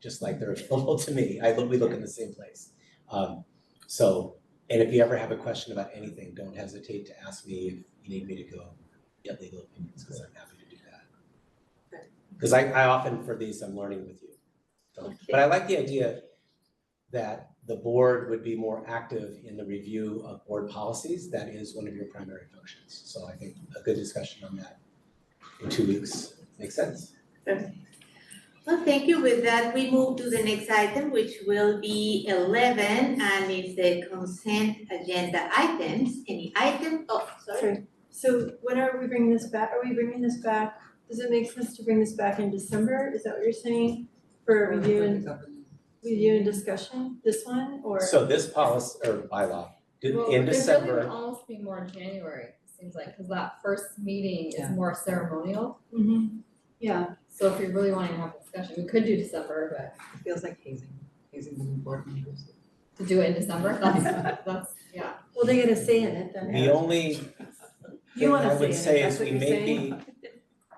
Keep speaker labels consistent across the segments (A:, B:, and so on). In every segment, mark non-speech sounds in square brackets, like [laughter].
A: just like they're [laughs] available to me. I look, we look in the same place. Um, so, and if you ever have a question about anything, don't hesitate to ask me if you need me to go get legal opinions, because I'm happy to do that.
B: Good.
A: Because I, I often, for these, I'm learning with you. So, But I like the idea that the board would be more active in the review of board policies. That is one of your primary functions. So I think a good discussion on that in two weeks makes sense.
B: Well, thank you. With that, we move to the next item, which will be eleven, and it's the consent agenda items. Any item, oh, sorry.
C: Sorry. So when are we bringing this back? Are we bringing this back? Does it make sense to bring this back in December? Is that what you're saying? For review and review and discussion, this one or?
A: So this policy or bylaw, did-
D: Well,
A: in
D: It really would
A: December,
D: almost be more in January, it seems like, cause that first meeting is
E: Yeah.
D: more ceremonial.
C: Mhm. Yeah,
D: So if we really wanna have a discussion, we could do December,
E: It feels like hazing, hazing the new board members.
D: but to do it in December, [laughs] that's, that's, yeah.
C: well, they gotta say in it then.
A: the only
C: You
A: thing
C: wanna
A: I would say
C: say in it,
A: is
C: that's what
A: we
C: you're
A: may
C: saying?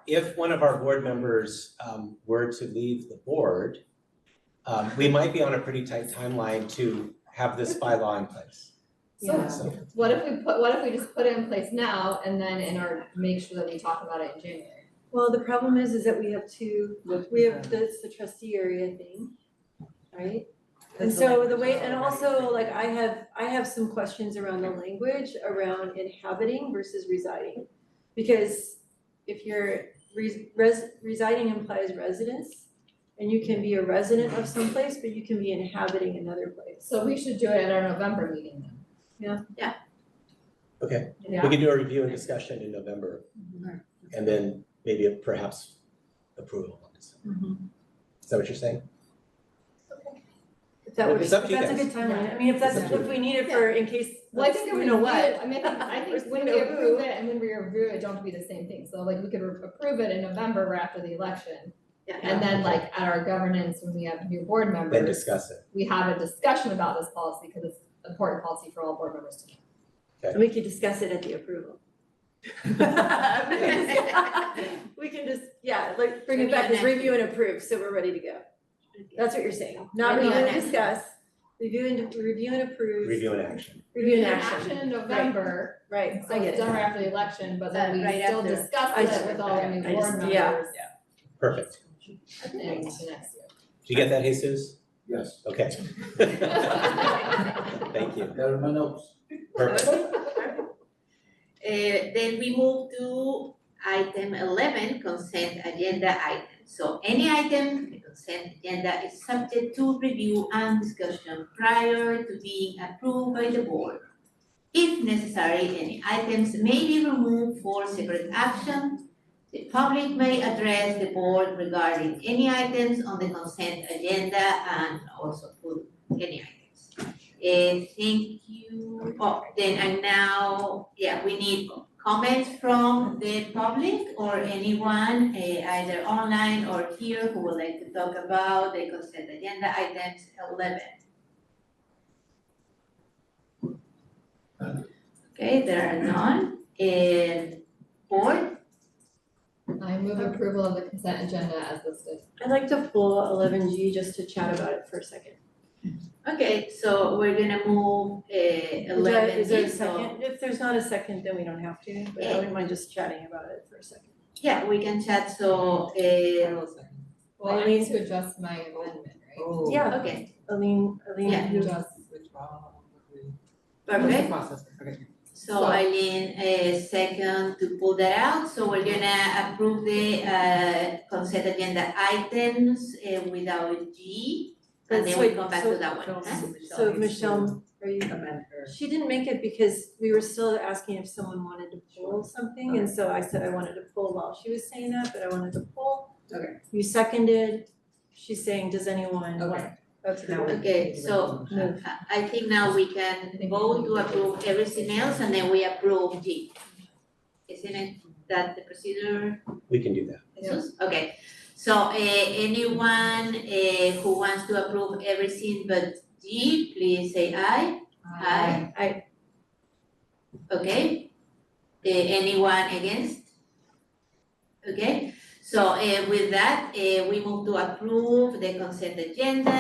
A: be, if one of our board members um were to leave the board, um we might be on a pretty tight timeline to have this bylaw in place.
C: Yeah.
D: So
A: So
D: what if we put, what if we just put it in place now and then in our, make sure that we talk about it in January?
C: Well, the problem is, is that we have two,
E: Look,
C: we have this, the trustee area thing, right? And
E: That's
C: so the
E: language
C: way,
E: is
C: and
E: already
C: also
E: there.
C: like I have, I have some questions around the language around inhabiting versus residing. Because if you're res- res- residing implies residence, and you can be a resident of some place, but you can be inhabiting another place.
D: So we should do it at our November meeting then.
A: Okay. we
D: Yeah,
A: can do a review and discussion in November. And then maybe perhaps approval on December.
D: Mm-hmm.
A: Is that what you're saying?
C: If that would,
A: It's up
C: if
A: to you
C: that's a
A: guys.
C: good timeline, I mean, if that's,
A: It's up to
C: if we need it for, in case,
D: well, I think if
C: we
D: we
C: know
D: do
C: what.
D: it, I mean, I think
C: [laughs] Versus
D: when
C: we
D: we
C: know who.
D: approve it and when we review it, don't be the same thing, so like we could re- approve it in November or after the election.
B: Yeah.
D: And then like at our governance, when we have new board
A: Then
D: members,
A: discuss it.
D: we have a discussion about this policy, cause it's important policy for all board members to know.
C: And we could discuss it at the
D: [laughs]
C: approval. [laughs] We can
B: [laughs]
C: discuss- We can just, yeah, like bring it back as review and approve, so we're ready to go. That's what you're saying, not
B: Review
C: review
B: and
C: and
B: action.
C: discuss, review and, review and approve.
A: Review and action.
C: Review and
D: An
C: action,
D: in November,
C: right,
D: so
C: I get
D: it's
C: it.
D: done right after the election, but
B: Uh,
D: then we
B: right
D: still
B: after.
D: discuss
C: I just-
D: it with all the new
C: I
D: board
C: just-
D: members.
C: yeah.
A: Perfect.
D: I think to next year. [laughs]
A: Did you get that, Jesus?
F: Yes,
A: Okay. [laughs] Thank you.
F: got it in my notes.
A: Perfect.
B: Uh, then we move to item eleven, consent agenda items. So any item, the consent agenda is subject to review and discussion prior to being approved by the board. If necessary, any items may be removed for separate action. The public may address the board regarding any items on the consent agenda and also put any items. Uh, thank you. Oh, then I now, yeah, we need comments from the public or anyone, uh, either online or here, who would like to talk about the consent agenda items eleven. Okay, there are none. And board,
D: I move approval of the consent agenda as listed.
C: I'd like to pull eleven G just to chat about it for a second.
B: okay, so we're gonna move uh,
C: Is there-
B: eleven
C: is there a
B: in, so-
C: second? If there's not a second, then we don't have to, but I wouldn't mind just chatting about it for a second.
B: Yeah, we can chat, so, uh,
D: Well, I need to adjust my amendment, right?
E: Oh.
C: Yeah.
B: okay,
C: Aline, Aline,
B: Yeah.
C: you-
D: Adjust.
E: Withdrawal.
B: perfect.
E: Process, okay.
B: So
D: So-
B: Eileen, a second to pull that out, so we're gonna approve the uh consent agenda items uh, without G.
C: But
B: And then
C: so-
B: we come back
C: so-
B: to that one, huh?
C: so Michelle, are you?
E: Amend her.
C: She didn't make it because we were still asking if someone wanted to pull something, and so I said I wanted to pull while she was saying that, but I wanted to pull.
E: Okay.
C: You seconded, she's saying, does anyone want?
E: Okay.
C: Okay.
E: Now we-
B: Okay, so-
C: Move.
B: I I think now we can vote to approve everything else and then we approve G. Isn't it that the procedure,
A: We can do that.
B: Jesus? Okay, so uh anyone uh who wants to approve everything but G, please say aye. Aye.
C: Aye.
B: Uh, Okay. Eh, anyone against? Okay, uh, So eh, with that, eh, we move to approve the consent agenda